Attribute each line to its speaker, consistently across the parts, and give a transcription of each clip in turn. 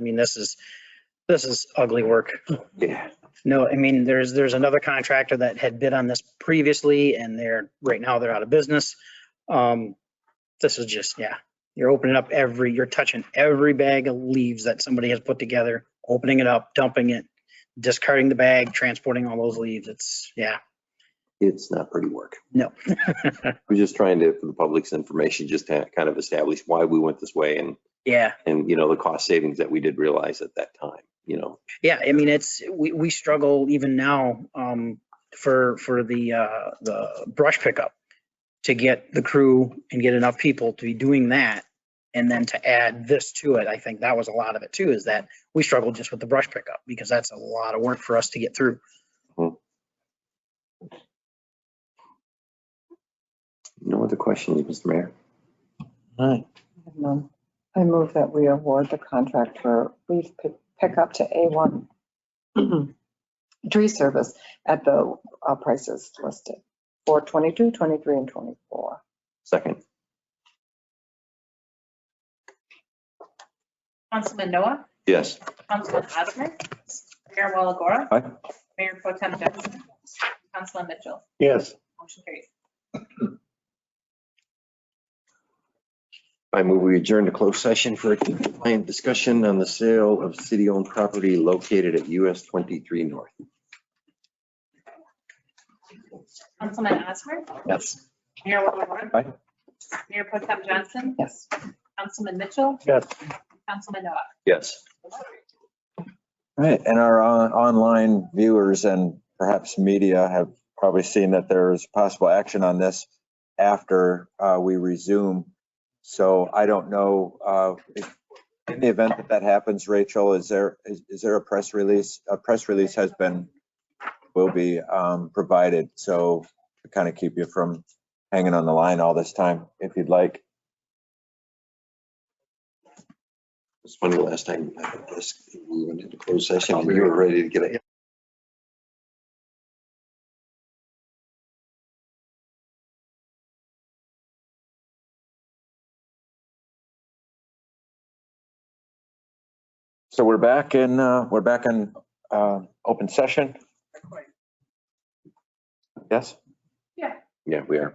Speaker 1: I mean, this is, this is ugly work.
Speaker 2: Yeah,
Speaker 1: No, I mean, there's, there's another contractor that had bid on this previously and they're, right now they're out of business. Um, this is just, yeah, you're opening up every, you're touching every bag of leaves that somebody has put together, opening it up, dumping it, discarding the bag, transporting all those leaves. It's, yeah,
Speaker 2: it's not pretty work.
Speaker 1: no.
Speaker 2: We're just trying to, for the public's information, just to kind of establish why we went this way and,
Speaker 1: Yeah,
Speaker 2: and, you know, the cost savings that we did realize at that time, you know.
Speaker 1: yeah, I mean, it's, we, we struggle even now, um, for, for the, uh, the brush pickup. To get the crew and get enough people to be doing that. And then to add this to it, I think that was a lot of it too, is that we struggled just with the brush pickup because that's a lot of work for us to get through.
Speaker 2: No other questions, Mr. Mayor?
Speaker 3: Um, I move that we award the contract for leaf pick- pickup to A1 tree service at the uh, prices listed for 22, 23, and 24.
Speaker 2: Second,
Speaker 4: Councilman Noah,
Speaker 2: yes.
Speaker 4: Councilman Osmer, Mayor Walagora.
Speaker 2: Aye.
Speaker 4: Mayor Pro Tem Johnson, Councilman Mitchell,
Speaker 5: yes,
Speaker 4: motion carries.
Speaker 2: I move we adjourn to closed session for a compliant discussion on the sale of city-owned property located at US 23 North.
Speaker 4: Councilman Osmer,
Speaker 2: Yes.
Speaker 4: Mayor Walagora.
Speaker 2: Aye.
Speaker 4: Mayor Pro Tem Johnson,
Speaker 3: Yes.
Speaker 4: Councilman Mitchell,
Speaker 5: yes.
Speaker 4: Councilman Noah.
Speaker 2: Yes.
Speaker 6: All Right, and our on- online viewers and perhaps media have probably seen that there's possible action on this after uh, we resume. So I don't know, uh, if- in the event that that happens, Rachel, is there, is is there a press release? A press release has been, will be um, provided, so to kind of keep you from hanging on the line all this time, if you'd like.
Speaker 2: It's funny, last time I had this, we went into closed session and you were ready to get it.
Speaker 6: So we're back in, uh, we're back in uh, open session, yes?
Speaker 2: Yeah, we are.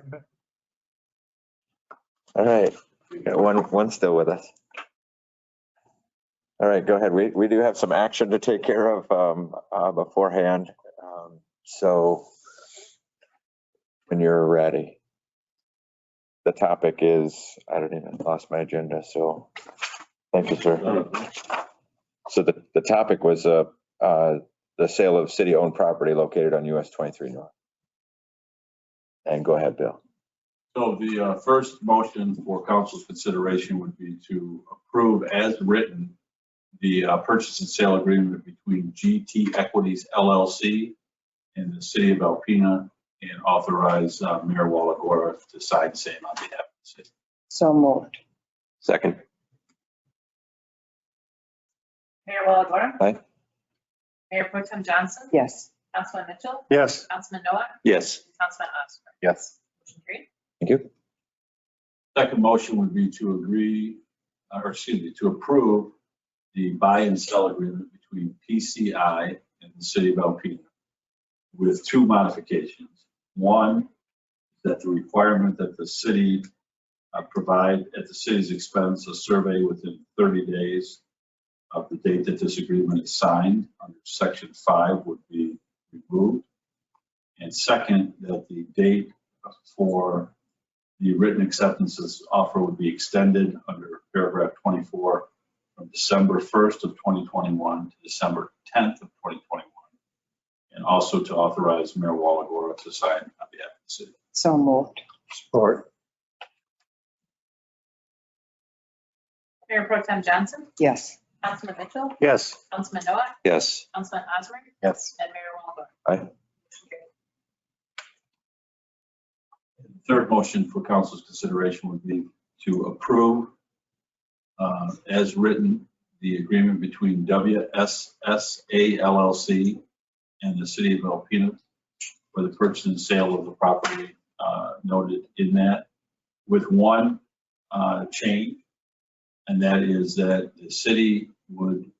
Speaker 6: All right, We got one, one still with us. All right, go ahead. We, we do have some action to take care of um, uh, beforehand. Um, So when you're ready. The topic is, I don't even, lost my agenda, so thank you, sir. So the, the topic was uh, uh, the sale of city-owned property located on US 23 North. And go ahead, Bill.
Speaker 7: So the uh, first motion for council's consideration would be to approve as written the uh, purchase and sale agreement between GT Equities LLC and the city of Alpena and authorize uh, Mayor Walagora to sign the same on behalf of the city.
Speaker 3: So moved.
Speaker 2: Second,
Speaker 4: Mayor Walagora.
Speaker 6: Aye.
Speaker 4: Mayor Pro Tem Johnson,
Speaker 3: Yes.
Speaker 4: Councilman Mitchell,
Speaker 5: Yes.
Speaker 4: Councilman Noah,
Speaker 2: yes.
Speaker 4: Councilman Osmer.
Speaker 6: Yes.
Speaker 4: Motion carries.
Speaker 6: Thank you.
Speaker 7: Second motion would be to agree, uh, or excuse me, to approve the buy and sell agreement between PCI and the city of Alpena with two modifications. One, that the requirement that the city uh, provide at the city's expense a survey within 30 days of the date that this agreement is signed under section five would be removed. And second, that the date for the written acceptances offer would be extended under paragraph 24 from December 1st of 2021 to December 10th of 2021. And also to authorize Mayor Walagora to sign on behalf of the city.
Speaker 3: So moved.
Speaker 5: Support,
Speaker 4: Mayor Pro Tem Johnson,
Speaker 3: Yes.
Speaker 4: Councilman Mitchell,
Speaker 5: yes.
Speaker 4: Councilman Noah,
Speaker 2: Yes.
Speaker 4: Councilman Osmer,
Speaker 6: Yes.
Speaker 4: and Mayor Walagora.
Speaker 6: Aye.
Speaker 4: Motion carries.
Speaker 7: Third motion for council's consideration would be to approve uh, as written, the agreement between WSSA LLC and the city of Alpena for the purchase and sale of the property uh, noted in that with one uh, change. And that is that the city would